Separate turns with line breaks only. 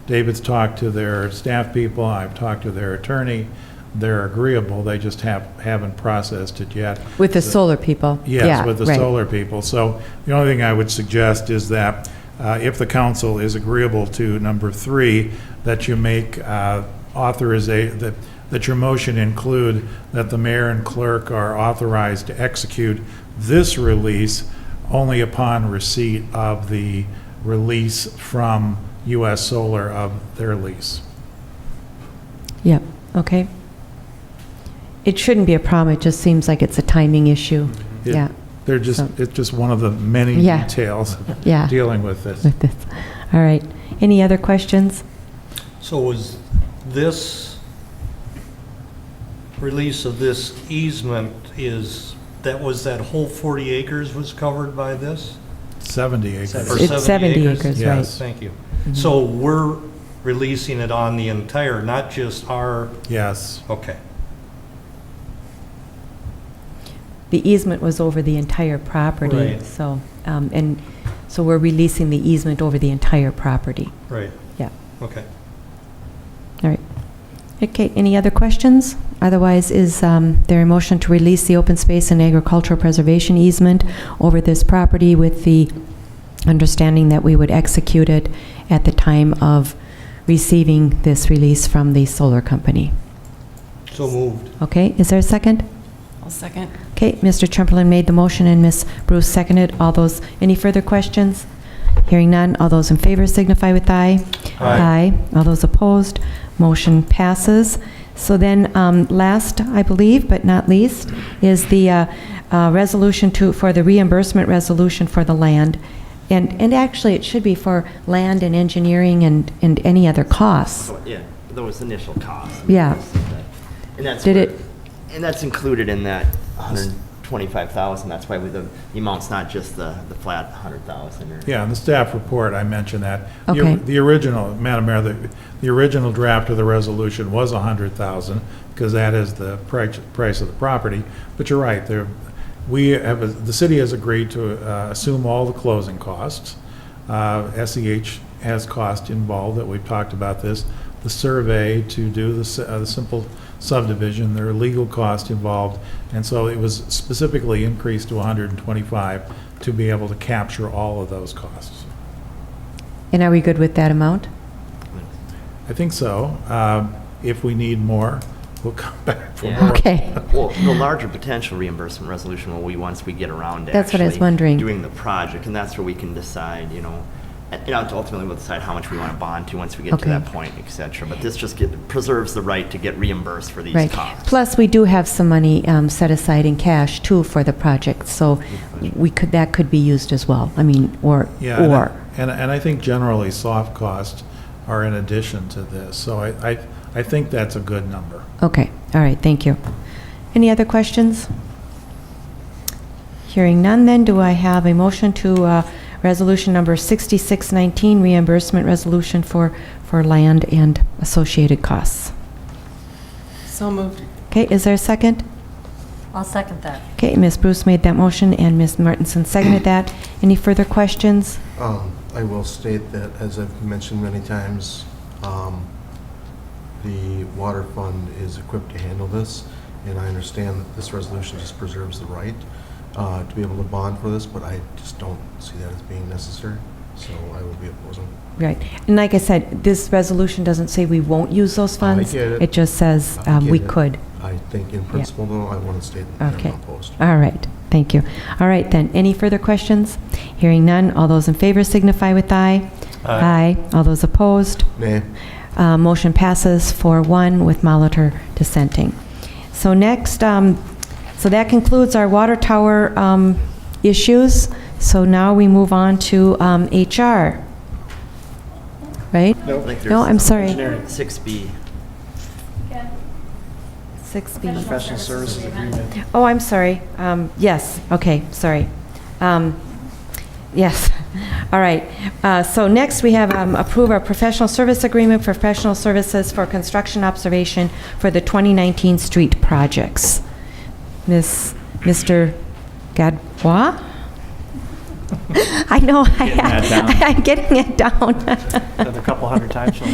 David's talked to their staff people, I've talked to their attorney. They're agreeable, they just have, haven't processed it yet.
With the solar people?
Yes,
Yeah,
with the
right.
solar people. So the only thing I would suggest is that uh, if the council is agreeable to number three, that you make authorization, that, that your motion include that the mayor and clerk are authorized to execute this release only upon receipt of the release from US Solar of their lease.
Yep, okay. It shouldn't be a problem, it just seems like it's a timing issue.
It-
Yeah,
They're just,
So-
it's just one of the many
Yeah.
details of
yeah.
dealing with this.
With this. All right. Any other questions?
So was this, release of this easement is, that was that whole 40 acres was covered by this?
70 acres.
Or
It's 70 acres, Mm-hmm. right.
Yes.
Thank you. So we're releasing it on the entire, not just our,
Yes,
okay.
The easement was over the entire property,
Right.
so, um, and, so we're releasing the easement over the entire property.
Right.
Yeah.
Okay.
All right. Okay, any other questions? Otherwise, is um, there a motion to release the open space and agricultural preservation easement over this property with the understanding that we would execute it at the time of receiving this release from the solar company?
So moved.
Okay, is there a second?
I'll second.
Okay, Mr. Chamberlain made the motion and Ms. Bruce seconded. All those, any further questions? Hearing none, all those in favor signify with aye.
Aye.
All those opposed, motion passes. So then, um, last, I believe, but not least, is the uh, uh, resolution to, for the reimbursement resolution for the land. And, and actually, it should be for land and engineering and, and any other costs.
Yeah, those initial costs.
Yeah.
And that's.
Did
where-
it-
And that's included in that 125,000, that's why we- the the amount's not just the, the flat 100,000 or.
yeah, in the staff report, I mentioned that. The-
Okay.
The original, Madam Mayor, the, the original draft of the resolution was a hundred thousand, because that is the price, price of the property. But you're right, there, we have, the city has agreed to uh, assume all the closing costs. Uh, SEH has cost involved, that we've talked about this, the survey to do the, s- uh, the simple subdivision, there are legal costs involved. And so it was specifically increased to hundred and twenty-five to be able to capture all of those costs.
And are we good with that amount?
I think so. Um, If we need more, we'll come back for
Yeah.
more.
Okay.
Well, the larger potential reimbursement resolution will be once we get around to.
That's what I was
actually
wondering.
Doing the project, and that's where we can decide, you know, and you know, ultimately we'll decide how much we want to bond to once we get to
Okay.
that point, et cetera. But this just get- preserves the right to get reimbursed for these
Right.
costs.
Plus, we do have some money um, set aside in cash, too, for the project, so we could, that could be used as well. I mean, or,
Yeah, and I-
or,
And, and I think generally soft costs are in addition to this. So I, I, I think that's a good number.
okay, all right, thank you. Any other questions? Hearing none, then, do I have a motion to uh, Resolution Number 6619, reimbursement resolution for, for land and associated costs?
So moved.
Okay, is there a second?
I'll second that.
Okay, Ms. Bruce made that motion, and Ms. Martenson seconded that. Any further questions?
Um, I will state that, as I've mentioned many times, um, the water fund is equipped to handle this, and I understand that this resolution just preserves the right uh, to be able to bond for this, but I just don't see that as being necessary, so I will be opposing.
Right. And like I said, this resolution doesn't say we won't use those
I
funds.
get it.
It just says
I
um, we
get it.
could.
I think in principle, though, I want to state that
Okay. Uh,
I'm opposed.
All right. Thank you. All right, then. Any further questions? Hearing none. All those in favor signify with aye.
Aye.
All those opposed?
Nay.
Uh, Motion passes for one with Molitor dissenting. So next, um, so that concludes our water tower um, issues. So now we move on to um, HR. Right?
I think
No,
there's
I'm sorry.
engineering, 6B.
6B.
Professional services agreement.
Oh, I'm sorry. Um, Yes, okay, sorry. Um, Yes, all right. Uh, So next, we have um, approve our professional service agreement for professional services for construction observation for the 2019 street projects. Miss, Mr. Gadbois? I know, I-
Getting that down.
I'm getting it down.
Another couple hundred times, she'll